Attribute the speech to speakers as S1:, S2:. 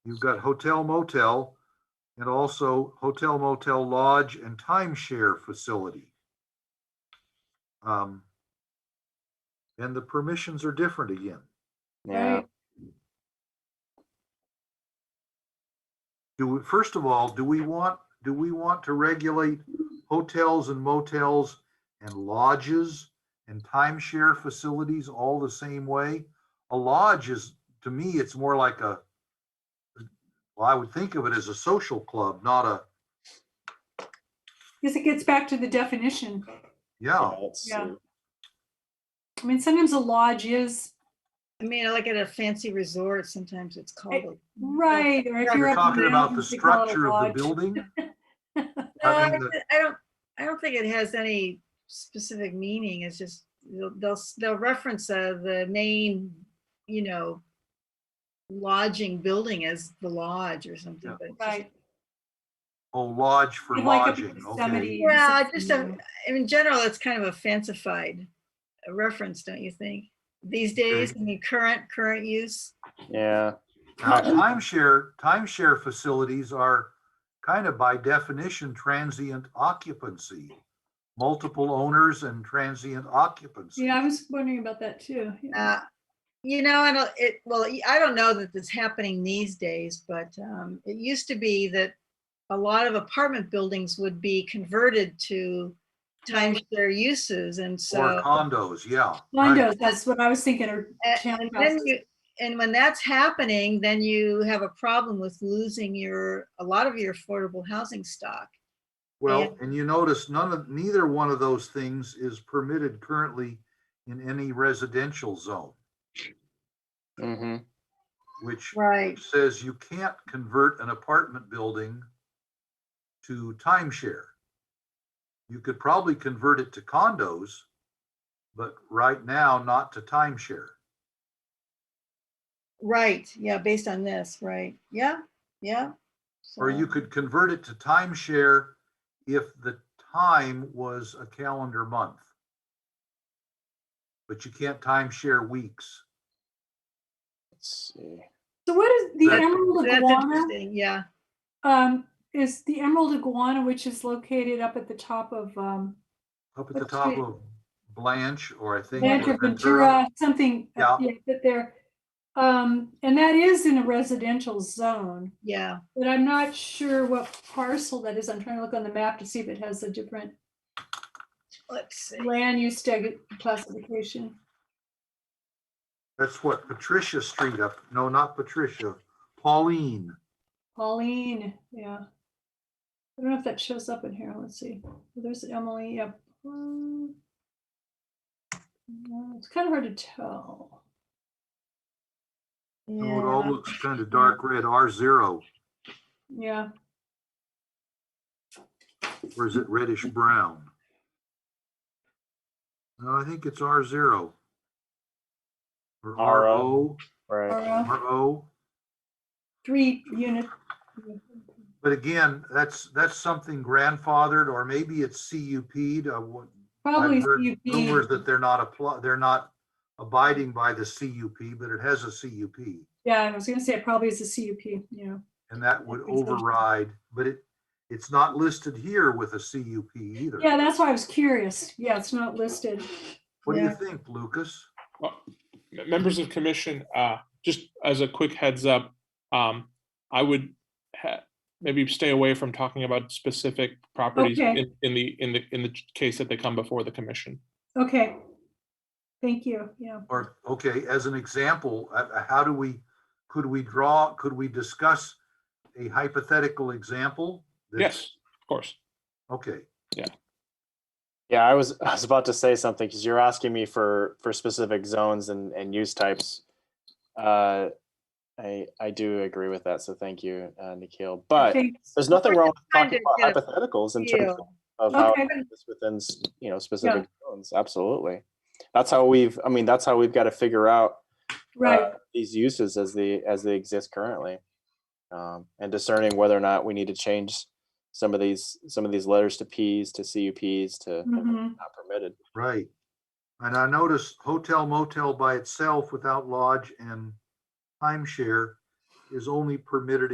S1: You've got hotel motel and also hotel motel lodge and timeshare facility. Um, And the permissions are different again.
S2: Yeah,
S3: Right.
S1: Do, we first of all, do we want, do we want to regulate hotels and motels and lodges and timeshare facilities all the same way? A lodge is, to me, it's more like a, well, I would think of it as a social club, not a,
S3: Because it gets back to the definition.
S1: yeah,
S2: that's,
S3: Yeah.
S2: uh,
S3: I mean, sometimes a lodge is,
S4: I mean, like at a fancy resort, sometimes it's called. a-
S3: right, or if you're
S1: you're
S3: up in
S1: talking
S3: the
S1: about the
S3: mountains, they call it a
S1: structure of
S3: lodge.
S1: the building.
S4: No,
S1: I
S4: I
S1: mean,
S4: don't- I don't, I don't think it has any specific meaning. It's just, they'll, they'll s- they'll reference uh, the main, you know, lodging building as the lodge or something.
S1: Yeah.
S4: but it's just-
S3: Right.
S1: Oh, lodge for
S3: You'd like a
S1: lodging, okay.
S3: Yosemite or
S4: Yeah, I
S3: something,
S4: just
S3: you
S4: don't-
S3: know.
S4: In general, it's kind of a fancified reference, don't you think? These days, I mean, current, current use.
S2: yeah,
S1: Now, timeshare, timeshare facilities are kind of by definition transient occupancy. Multiple owners and transient occupancy.
S3: Yeah, I was wondering about that too. yeah.
S4: Uh, You know, I don't, it, well, y- I don't know that it's happening these days, but um, it used to be that a lot of apartment buildings would be converted to timeshare uses and
S1: Or
S4: so.
S1: condos, yeah. right.
S3: Condos, that's what I was thinking, or
S4: a- Then
S3: townhouses.
S4: you, and when that's happening, then you have a problem with losing your, a lot of your affordable housing stock.
S1: Well, and you notice none of, neither one of those things is permitted currently in any residential zone,
S2: hmm
S1: which
S4: Right.
S1: says you can't convert an apartment building to timeshare. You could probably convert it to condos, but right now not to timeshare.
S4: Right, yeah, based on this, right, yeah, yeah.
S1: Or you
S4: so-
S1: could convert it to timeshare if the time was a calendar month. But you can't timeshare weeks.
S2: let's see.
S3: So what is the
S1: That-
S3: emerald
S4: That's
S3: iguana?
S4: interesting, yeah,
S3: Um, is the emerald iguana, which is located up at the top of, um,
S1: Up at the
S3: Let's
S1: top
S3: see.
S1: of Blanche or I think.
S3: Rancho
S1: or
S3: Ventura, something,
S1: Yeah.
S3: uh, yeah, that there. Um, and that is in a residential zone,
S4: yeah,
S3: but I'm not sure what parcel that is. I'm trying to look on the map to see if it has a different
S4: let's see,
S3: land use tag- classification.
S1: That's what Patricia Street up, no, not Patricia, Pauline.
S3: Pauline, yeah. I don't know if that shows up in here. Let's see. Well, There's Emily, yep. Mm. No, It's kind of hard to tell.
S1: Oh, It all
S4: yeah,
S1: looks kind of dark red, R zero,
S3: Yeah,
S1: or is it reddish brown? No, I think it's R zero. Or R O,
S2: RO. Right,
S3: or, uh,
S1: R O.
S3: three unit.
S1: But again, that's, that's something grandfathered, or maybe it's CUP'd. I wa-
S3: Probably
S1: I've heard rumors
S3: CUP.
S1: that they're not apply, they're not abiding by the CUP, but it has a CUP.
S3: Yeah, I was gonna say it probably is a CUP, you know.
S1: And that would
S3: Exactly.
S1: override, but it, it's not listed here with a CUP either.
S3: Yeah, that's why I was curious. Yeah, it's not listed.
S1: What do you
S4: yeah.
S1: think, Lucas?
S5: M- members of commission, uh, just as a quick heads up, um, I would ha- maybe stay away from talking about specific properties
S3: Okay.
S5: in, in the, in the, in the case that they come before the commission.
S3: Okay. Thank you, yeah.
S1: Or, okay, as an example, uh, uh, how do we, could we draw, could we discuss a hypothetical example? that's-
S5: Yes, of course.
S1: Okay,
S2: yeah, I was, I was about to say something, because you're asking me for, for specific zones and, and use types. Uh, I, I do agree with that, so thank you, uh, Nikhil, but
S3: Thanks.
S2: there's nothing wrong with
S4: trying
S2: talking
S4: to
S2: about hypotheticals in terms
S4: Feel.
S2: of how
S3: Okay.
S2: it's within, s- you know, specific zones, absolutely. That's how we've, I mean, that's how we've got to figure out
S3: Right,
S2: uh, these uses as they as they exist currently um, and discerning whether or not we need to change some of these some of these letters to p's to cups to
S3: Mhm.
S2: not permitted
S1: right. And I noticed hotel motel by itself without lodge and timeshare is only permitted